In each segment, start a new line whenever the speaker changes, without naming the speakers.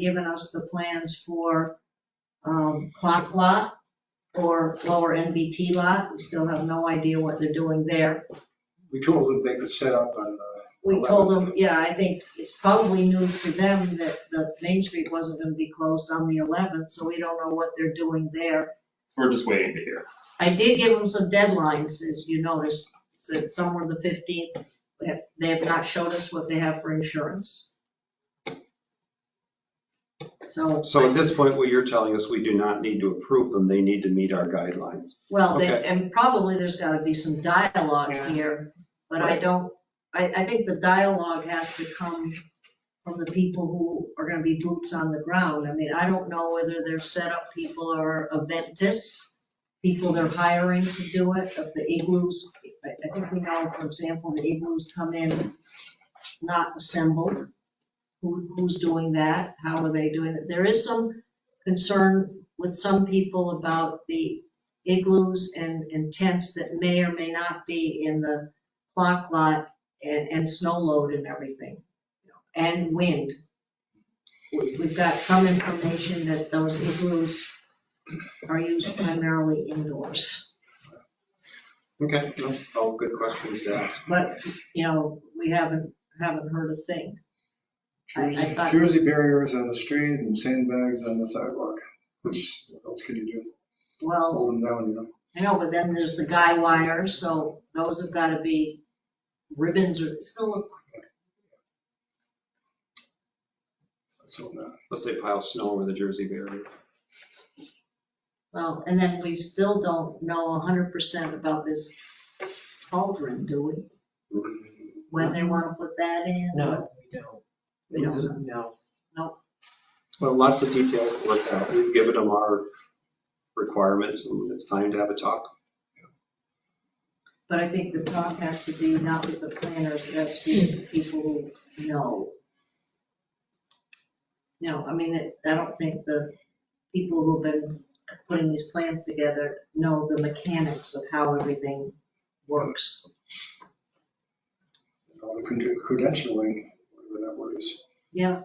given us the plans for um, clock lot or lower NBT lot. We still have no idea what they're doing there.
We told them they could set up on, uh,
We told them, yeah, I think it's probably news to them that the Main Street wasn't going to be closed on the 11th, so we don't know what they're doing there.
We're just waiting to hear.
I did give them some deadlines, as you noticed, said somewhere the 15th. They have- They have not showed us what they have for insurance. So,
So at this point, what you're telling us, we do not need to approve them, they need to meet our guidelines.
well, they-
Okay.
and probably there's got to be some dialogue
Yeah.
here, but I
Right.
don't, I, I think the dialogue has to come from the people who are going to be boots on the ground. I mean, I don't know whether they're setup people or eventists, people they're hiring to do it, of the igloos. I I think we know, for example, the igloos come in not assembled. Who, who's doing that? How are they doing it? There is some concern with some people about the igloos and, and tents that may or may not be in the clock lot and, and snow load and everything, you know, and wind. We- We've got some information that those igloos are used primarily indoors.
Okay, no, all good questions to ask.
But, you know, we haven't, haven't heard a thing. I- I
Jersey-
thought-
Jersey barriers on the street and sandbags on the sidewalk. Which, what else can you do?
Well,
Hold them down, you know?
I know, but then there's the guy wire, so those have got to be ribbons or, still,
Let's hope not.
Let's say pile snow over the Jersey barrier.
well, and then we still don't know 100% about this cauldron, do we? When they want to put that in?
No, we don't.
We don't know.
No.
Well, lots of details to work out, we've given them our requirements, and it's time to have a talk.
But I think the talk has to be not with the planners, it has to be with people who know. No, I mean, it- I don't think the people who've been putting these plans together know the mechanics of how everything works.
All the cred- credentialing, whatever that word is.
Yeah,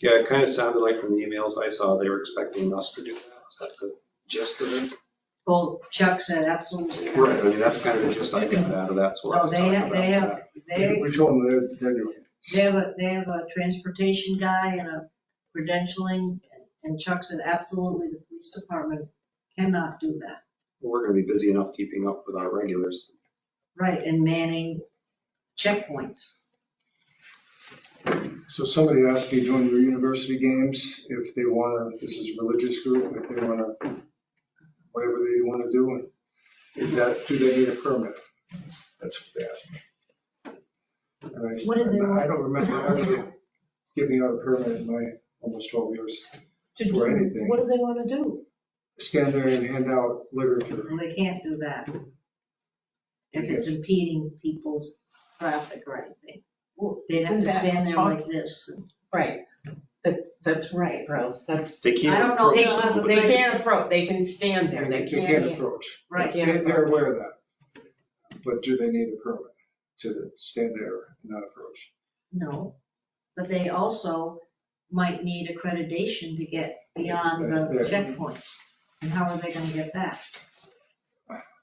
Yeah, it kind of sounded like from the emails I saw, they were expecting us to do that, is that the gist of it?
well, Chuck said absolutely. not.
Right, I mean, that's kind of the gist I got out of that, so.
Oh, they have- they have- They,
We told them they're, they're doing it.
they have a, they have a transportation guy and a credentialing, and Chuck said absolutely the police department cannot do that.
We're gonna be busy enough keeping up with our regulars.
Right, and manning checkpoints.
So somebody asked me during your university games if they want to, this is a religious group, if they want to, whatever they want to do. Is that, do they need a permit? That's what they asked me. And I s-
What do they want?
I don't remember ever giving out a permit in my almost 12 years.
To
For
do-
anything.
What do they want to do?
Stand there and hand out literature.
Well, they can't do that if it's impeding people's traffic or anything.
Well,
They'd have to
isn't that
stand there
off-
like this.
Right, that's, that's right, Rose, that's, they
They can't.
I don't know, they-
approach, but
they can't approach, they can stand there, they can't.
approach.
Right.
They- They're aware of that. But do they need a permit to stand there and not approach?
No, but they also might need accreditation to get beyond the
There.
checkpoints. And how are they gonna get that?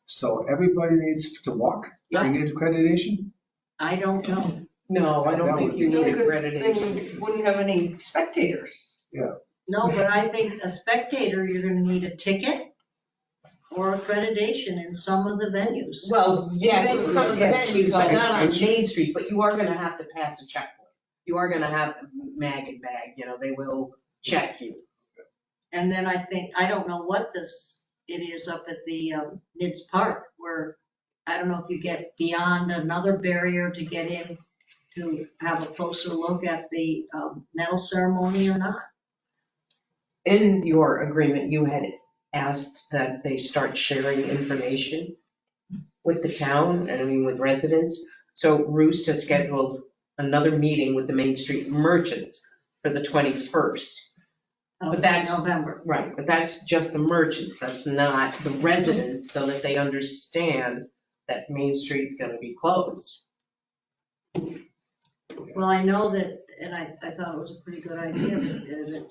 So everybody needs to walk? We need accreditation?
I don't know.
No, I don't
That
think
would
you
be
need
great.
accreditation.
Then you wouldn't have any spectators.
No, but I think a spectator, you're gonna need a ticket or accreditation in some of the venues.
Well, yes,
Then-
some of the
yeah,
venues are not on
checkpoint.
Main Street, but you are gonna have to pass a checkpoint. You are gonna have mag and bag, you know, they will check you.
And then I think, I don't know what this, it is up at the um, Nids Park where, I don't know if you get beyond another barrier to get in to have a closer look at the um, medal ceremony or not.
In your agreement, you had asked that they start sharing information with the town, and I mean with residents. So Roost has scheduled another meeting with the Main Street merchants for the 21st.
of
But that's-
um, November.
Right, but that's just the merchants, that's not the residents, so that they understand that Main Street's gonna be closed.
Well, I know that, and I, I thought it was a pretty good idea, that that